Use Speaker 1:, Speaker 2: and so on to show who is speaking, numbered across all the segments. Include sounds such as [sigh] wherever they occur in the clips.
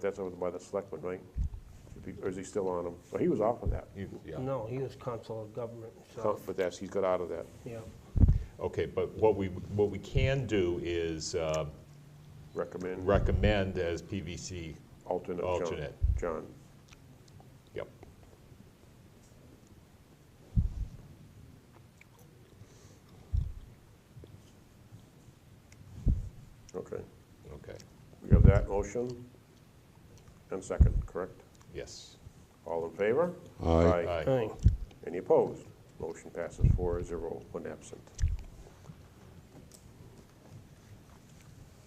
Speaker 1: That's over by the selectmen, right? If he- Or is he still on them? Well, he was off of that,
Speaker 2: You- Yeah,
Speaker 3: No, he was council of government, so,
Speaker 1: but that's, he's got out of that,
Speaker 3: yeah.
Speaker 2: okay, but what we, what we can do is uh,
Speaker 1: recommend
Speaker 2: recommend as PVC,
Speaker 1: alternate John.
Speaker 2: Alternate.
Speaker 1: John,
Speaker 2: yep.
Speaker 1: okay.
Speaker 2: Okay,
Speaker 1: We have that motion and second, correct?
Speaker 2: yes.
Speaker 1: All in favor?
Speaker 4: Aye.
Speaker 2: Aye.
Speaker 3: Aye.
Speaker 1: Any opposed? Motion passes four zero, one absent.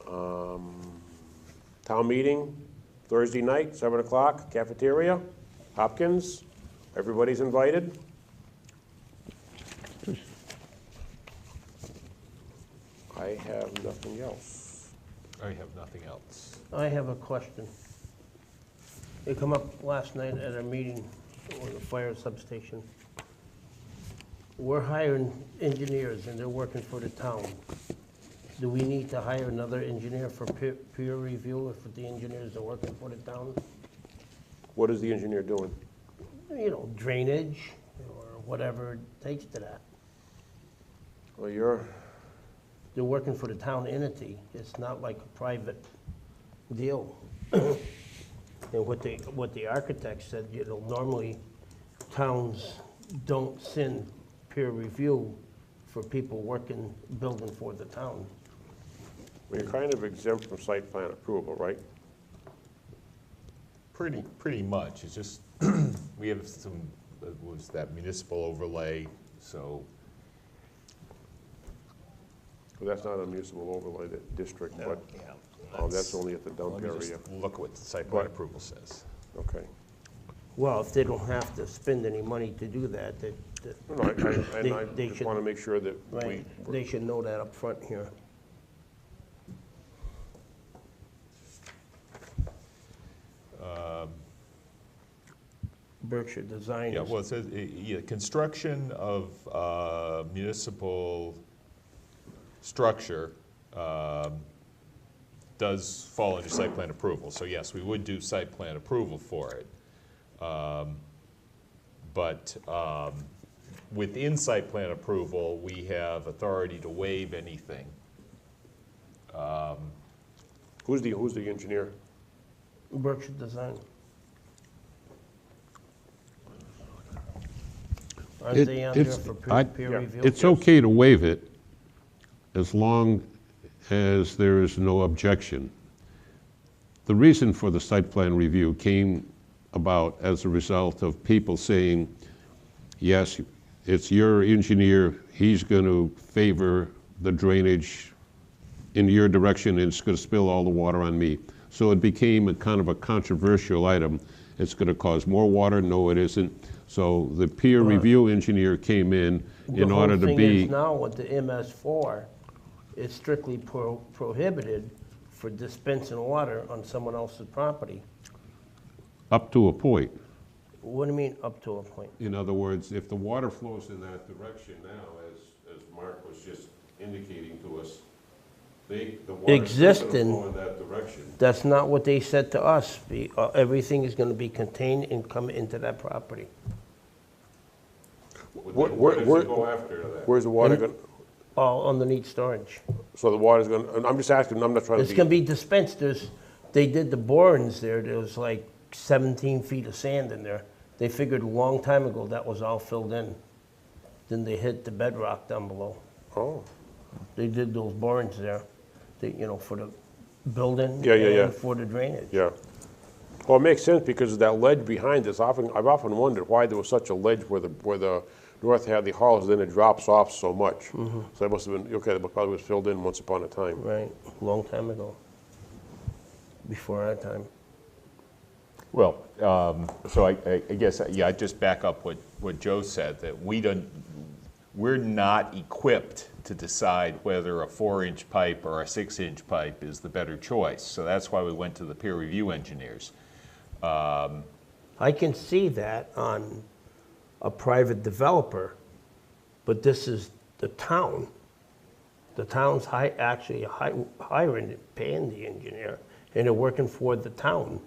Speaker 1: Um, Town meeting, Thursday night, seven o'clock, cafeteria, Hopkins, everybody's invited. I have nothing else.
Speaker 2: I have nothing else.
Speaker 3: I have a question. It come up last night at a meeting on the fire substation. We're hiring engineers and they're working for the town. Do we need to hire another engineer for peer, peer review if the engineers are working for the town?
Speaker 1: What is the engineer doing?
Speaker 3: You know, drainage or whatever it takes to that.
Speaker 1: Well, you're,
Speaker 3: They're working for the town entity. It's not like a private deal. [clears throat] And what the, what the architect said, you know, normally towns don't send peer review for people working, building for the town.
Speaker 1: well, you're kind of exempt from site plan approval, right?
Speaker 2: Pretty, pretty much, it's just, [clears throat] we have some, it was that municipal overlay, so,
Speaker 1: Well, that's not a municipal overlay that district,
Speaker 2: yeah.
Speaker 1: but, oh, that's only at the
Speaker 2: Let
Speaker 1: dump
Speaker 2: me just
Speaker 1: area.
Speaker 2: look what the site plan
Speaker 1: But-
Speaker 2: approval says.
Speaker 1: Okay.
Speaker 3: Well, if they don't have to spend any money to do that, that, that-
Speaker 1: No, no, I- I- And I
Speaker 3: They- they
Speaker 1: just
Speaker 3: should-
Speaker 1: want to make sure that we,
Speaker 3: right, they should know that up front here. Um, Berkshire Designers.
Speaker 2: Yeah, well, it says, uh, yeah, construction of uh, municipal structure um, does fall under site plan approval. So yes, we would do site plan approval for it. Um, But um, within site plan approval, we have authority to waive anything.
Speaker 1: who's the, who's the engineer?
Speaker 3: Berkshire Design. Aren't
Speaker 4: It-
Speaker 3: they out there
Speaker 4: it's-
Speaker 3: for
Speaker 4: I-
Speaker 3: peer- peer
Speaker 1: yeah,
Speaker 3: review?
Speaker 4: It's okay to waive it as long as there is no objection. The reason for the site plan review came about as a result of people saying, yes, it's your engineer, he's going to favor the drainage in your direction, and it's going to spill all the water on me. So it became a kind of a controversial item. It's going to cause more water, no it isn't. So the peer review engineer came in in order to
Speaker 3: The whole thing
Speaker 4: be,
Speaker 3: is now with the MS4 is strictly pro- prohibited for dispensing water on someone else's property.
Speaker 4: up to a point.
Speaker 3: What do you mean, up to a point?
Speaker 4: In other words, if the water flows in that direction now, as, as Mark was just indicating to us, they, the water is going to
Speaker 3: Existing.
Speaker 4: flow in that direction.
Speaker 3: That's not what they said to us. The- uh, Everything is going to be contained and come into that property.
Speaker 4: Would
Speaker 1: Where-
Speaker 4: they-
Speaker 1: where-
Speaker 4: What does
Speaker 1: where-
Speaker 4: it go after
Speaker 3: Uh,
Speaker 4: that?
Speaker 1: Where's the water going,
Speaker 3: All underneath storage.
Speaker 1: so the water's going, to I'm just asking, I'm not trying
Speaker 3: It's gonna
Speaker 1: to be,
Speaker 3: be dispensed, there's, they did the borings there, there was like seventeen feet of sand in there. They figured a long time ago that was all filled in. Then they hit the bedrock down below.
Speaker 1: oh,
Speaker 3: They did those borings there, they, you know, for the building.
Speaker 1: Yeah, yeah, yeah.
Speaker 3: And for the drainage.
Speaker 1: yeah. Well, it makes sense because of that ledge behind us, often, I've often wondered why there was such a ledge where the, where the North Hadley Hall is, then it drops off so much. So that must have been, okay, that probably was filled in once upon a time.
Speaker 3: Right, long time ago, before our time.
Speaker 2: Well, um, so I, I I guess, uh, yeah, I just back up what, what Joe said, that we don't, we're not equipped to decide whether a four-inch pipe or a six-inch pipe is the better choice. So that's why we went to the peer review engineers.
Speaker 3: I can see that on a private developer, but this is the town. The town's hi, actually hi, hiring, paying the engineer, and they're working for the town.